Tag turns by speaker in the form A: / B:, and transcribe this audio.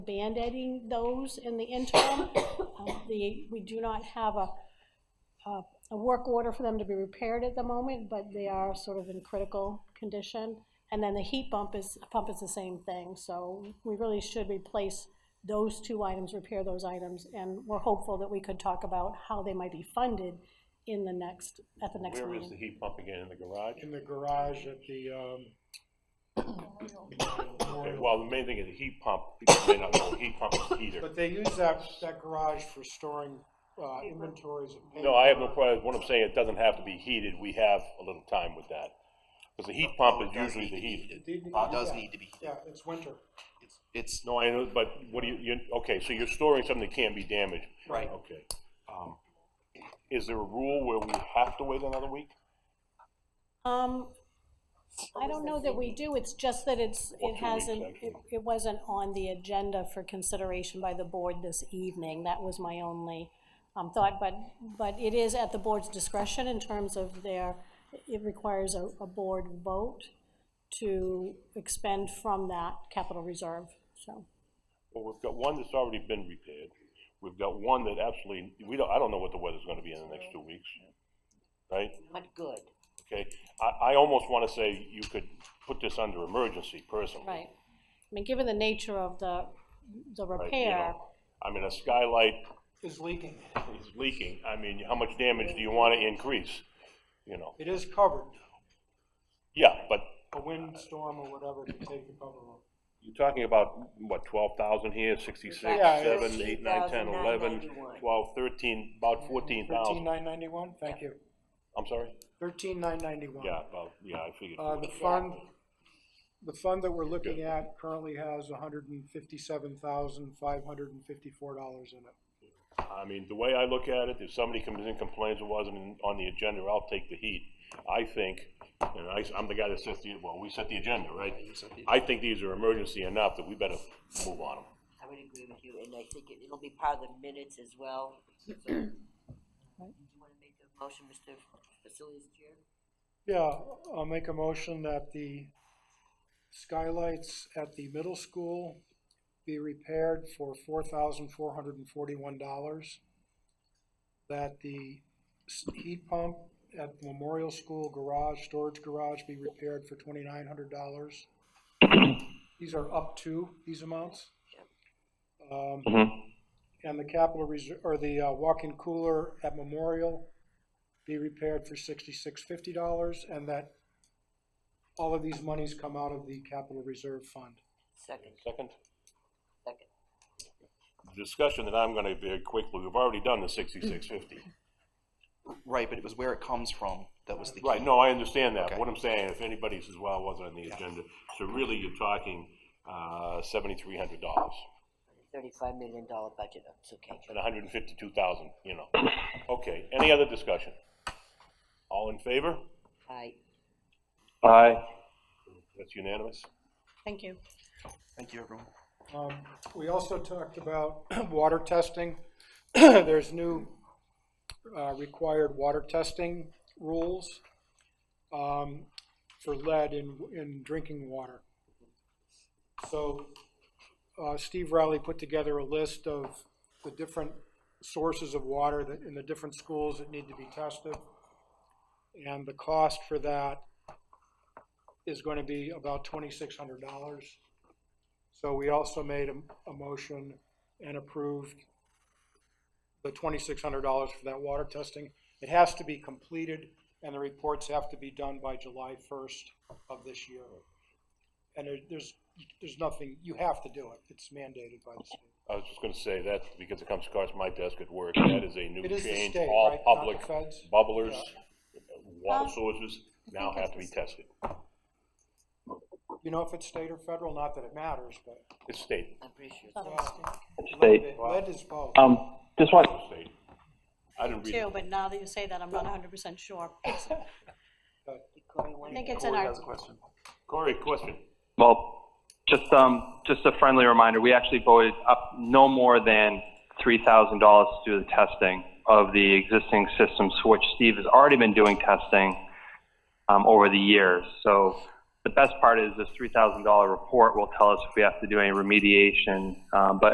A: band-aiding those in the interim. Um, The, we do not have a, a- a work order for them to be repaired at the moment, but they are sort of in critical condition. And then the heat pump is, pump is the same thing, so we really should replace those two items, repair those items, and we're hopeful that we could talk about how they might be funded in the next, at the next
B: Where is the
A: meeting.
B: heat pump again, in the garage?
C: in the garage at the, um.
B: Okay,
C: memorial.
B: Well, the main thing is the heat pump, people may not know, heat pump is heater.
C: But they use that, that garage for storing, uh, inventories of paint.
B: No, I have no problem, what I'm saying, it doesn't have to be heated, we have a little time with that. Because the heat pump is
D: Oh, It does
B: usually
D: need
B: the
D: to be
B: heater.
C: It did need-
D: Uh, It does
C: yeah.
D: need to be heated.
C: Yeah, it's winter.
D: It's- It's,
B: No, I know, but what do you, you, okay, so you're storing something that can't be damaged.
D: Right.
B: Okay. Um, Is there a rule where we have to wait another week?
A: Um, I don't know that we do, it's just that it's,
B: Or
A: it
B: two weeks,
A: hasn't, it,
B: actually.
A: it wasn't on the agenda for consideration by the board this evening. That was my only, um, thought, but, but it is at the board's discretion in terms of their, it requires a, a board vote to expend from that capital reserve, so.
B: Well, we've got one that's already been repaired. We've got one that absolutely, we don't, I don't know what the weather's gonna be in the next two weeks, right?
E: Not good.
B: Okay, I, I almost wanna say you could put this under emergency personally.
A: Right. I mean, given the nature of the, the
B: right, you know?
A: repair,
B: I mean, a skylight
C: It's leaking.
B: is leaking, I mean, how much damage do you wanna increase, you know?
C: It is covered.
B: Yeah, but
C: A windstorm or whatever can take the cover off.
B: you're talking about, what, twelve thousand here, sixty-six,
C: Yeah, it's-
B: seven, eight, nine, ten, eleven,
E: 13,991.
B: twelve, thirteen, about fourteen
C: Thirteen
B: thousand,
C: nine ninety-one, thank you.
B: I'm sorry?
C: Thirteen nine ninety-one.
B: Yeah, about, yeah, I figured.
C: Uh, the fund, the fund that we're looking at currently has hundred and fifty-seven thousand, five hundred and fifty-four dollars in it.
B: I mean, the way I look at it, if somebody comes in complains it wasn't in- on the agenda, I'll take the heat. I think, and I, I'm the guy that sets the, well, we set the agenda, right? I think these are emergency enough that we better move on them.
E: I would agree with you, and I think it- it'll be part of the minutes as well. So, Do you want to make a motion, Mr. Facilities Chair?
C: Yeah, I'll make a motion that the skylights at the middle school be repaired for four thousand four hundred and forty-one dollars. That the s- heat pump at the Memorial School garage, storage garage be repaired for twenty-nine hundred dollars. These are up to these amounts. Um, And the capital reserve, or the uh, walk-in cooler at Memorial be repaired for sixty-six fifty dollars, and that all of these monies come out of the capital reserve fund.
E: Second,
B: Second,
E: second.
B: discussion that I'm gonna very quickly, we've already done the sixty-six fifty.
D: right, but it was where it comes from that was the key.
B: Right, no, I understand that.
D: Okay.
B: What I'm saying, if anybody says, well, it wasn't on the agenda, so really you're talking, uh, seventy-three hundred dollars
E: Thirty-five million dollar budget, oh, it's okay.
B: and a hundred and fifty-two thousand, you know. Okay, any other discussion? All in favor?
E: Aye.
B: Aye. That's unanimous?
A: thank you.
D: Thank you, everyone.
C: Um, we also talked about water testing. There's new, uh, required water testing rules, um, for lead in, in drinking water. So, uh, Steve Riley put together a list of the different sources of water that, in the different schools that need to be tested. And the cost for that is gonna be about twenty-six hundred dollars. So we also made a, a motion and approved the twenty-six hundred dollars for that water testing. It has to be completed, and the reports have to be done by July first of this year. And there- there's, there's nothing, you have to do it, it's mandated by the state.
B: I was just gonna say that, because it comes across my desk at work, that is a new
C: It is the
B: change.
C: state,
B: All
C: right, not the
B: public
C: feds?
B: bubblers,
A: Um,
B: water sources now
A: think
B: have
A: it's
B: to be
A: the
B: tested.
C: You know if it's state or federal, not that it matters, but
B: It's state,
E: I'm pretty sure.
A: Thought it was Steve.
F: State.
C: lead is both.
F: Um, just want,
B: it's state. I didn't read
A: too,
B: it.
A: but now that you say that, I'm not hundred percent sure. I
E: Corey wanted
A: think it's in our,
D: question.
B: Corey, question?
F: well, just, um, just a friendly reminder, we actually voted up no more than three thousand dollars to do the testing of the existing systems, for which Steve has already been doing testing, um, over the years. So The best part is this $3,000 report will tell us if we have to do any remediation, um, but